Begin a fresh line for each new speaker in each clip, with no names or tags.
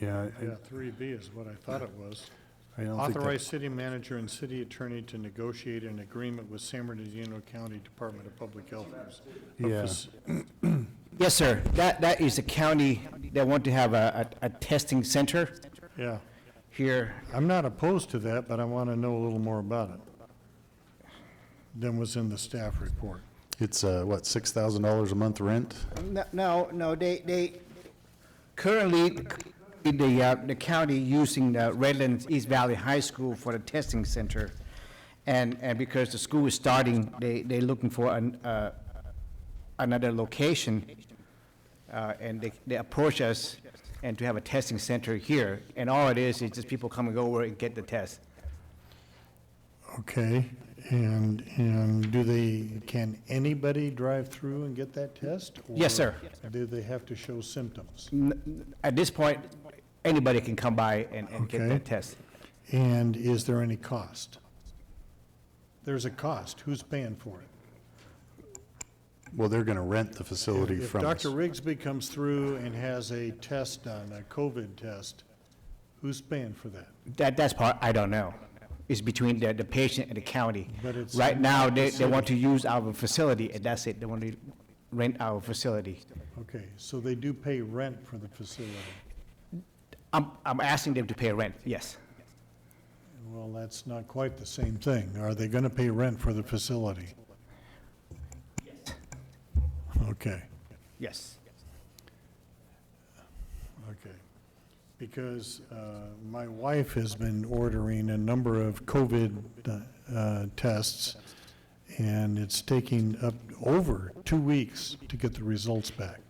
Yeah, I-
Yeah, three B is what I thought it was.
I don't think
Authorize
that,
city manager and city attorney to negotiate an agreement with San Bernardino County Department of Public Health.
Yeah.
Yes, sir. That, that is a county that want to have a, a, a testing center
Yeah,
here.
I'm not opposed to that, but I want to know a little more about it than was in the staff report.
It's, uh, what, six thousand dollars a month rent?
No, No, no, they, they, currently, the, uh, the county using the Redlands East Valley High School for the testing center. And, and because the school is starting, they, they looking for an, uh, another location. Uh, and they, they approach us and to have a testing center here. And all it is, is just people coming over and get the test.
Okay, and, and do they, can anybody drive through and get that test?
Yes, sir.
Or Do they have to show symptoms?
N- n- At this point, anybody can come by and, and get
Okay.
that test.
And is there any cost? There's a cost. Who's paying for it?
Well, they're gonna rent the facility
If
from us.
Dr. Rigsby comes through and has a test done, a COVID test, who's paying for that?
That, that's part, I don't know. It's between the, the patient and the county.
But it's
Right now, they, they
not
want to use our facility, and that's it. They want to rent our facility.
Okay, so they do pay rent for the facility.
I'm, I'm asking them to pay rent, yes.
Well, that's not quite the same thing. Are they going to pay rent for the facility? Okay.
Yes.
Okay. Because uh, my wife has been ordering a number of COVID uh, tests, and it's taking up over two weeks to get the results back.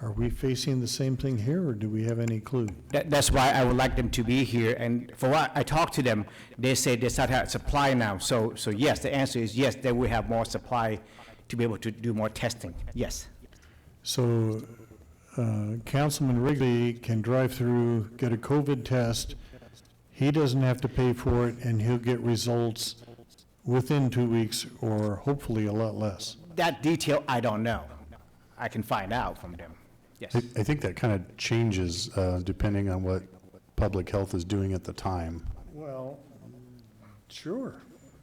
Are we facing the same thing here, or do we have any clue?
That, that's why I would like them to be here, and for what I talked to them, they said they start out supply now. So, so yes, the answer is yes, they will have more supply to be able to do more testing, yes.
So uh, Councilman Wrigley can drive through, get a COVID test, he doesn't have to pay for it, and he'll get results within two weeks, or hopefully a lot less.
That detail, I don't know. I can find out from them, yes.
I, I think that kind of changes, uh, depending on what public health is doing at the time.
Well, sure.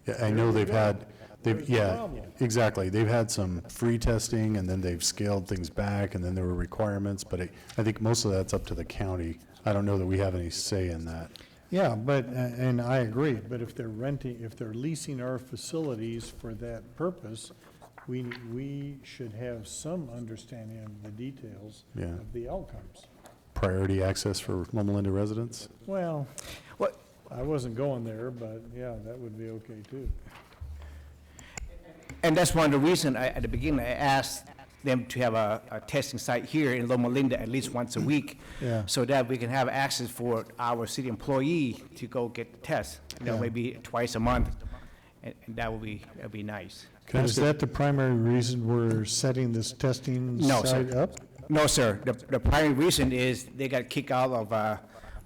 Yeah, I know they've had, they've,
There's a
yeah,
problem.
exactly. They've had some free testing, and then they've scaled things back, and then there were requirements, but I, I think most of that's up to the county. I don't know that we have any say in that.
Yeah, but, a- and I agree, but if they're renting, if they're leasing our facilities for that purpose, we, we should have some understanding of the details
Yeah.
of the outcomes.
Priority access for Loma Linda residents?
Well,
Well,
I wasn't going there, but yeah, that would be okay too.
And that's one of the reasons, at the beginning, I asked them to have a, a testing site here in Loma Linda at least once a week,
Yeah.
so that we can have access for our city employee to go get the test, you know,
Yeah.
maybe twice a month, and, and that would be, that'd be nice.
Can I
Is
just-
that the primary reason we're setting this testing
No, sir.
site up?
No, sir, the, the primary reason is they got kicked out of, uh,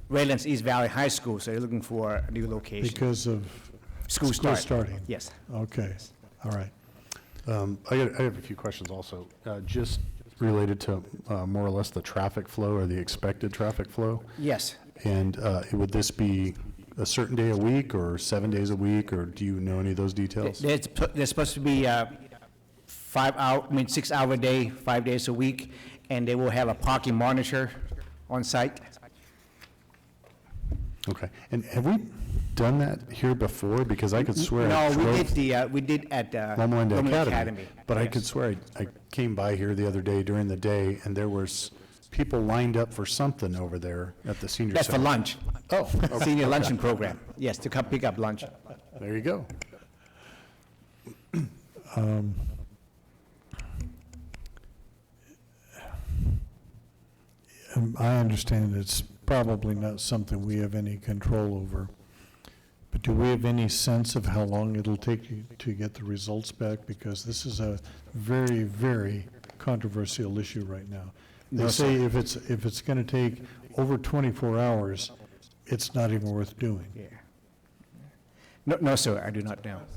Redlands East Valley High School, so they're looking for a new location.
Because of,
School
school
start.
starting?
Yes.
okay, all right.
Um, I got, I have a few questions also, uh, just related to, uh, more or less the traffic flow or the expected traffic flow.
Yes.
And, uh, would this be a certain day a week or seven days a week, or do you know any of those details?
There's, there's supposed to be uh five hour, I mean, six hour day, five days a week, and they will have a parking monitor on site.
Okay, and have we done that here before? Because I could swear I
No, we did
drove
the, uh, we did at uh,
Loma Linda
Loma
Academy. But I could swear I, I came by here the other day during the day, and there was people lined up for something over there at the senior
That's for
center.
lunch. Oh. Senior luncheon program, yes, to come pick up lunch.
There you go.
Um, I understand it's probably not something we have any control over, but do we have any sense of how long it'll take you to get the results back? Because this is a very, very controversial issue right now. They say if it's, if it's going to take over 24 hours, it's not even worth doing.
Yeah. No, no, sir, I do not know.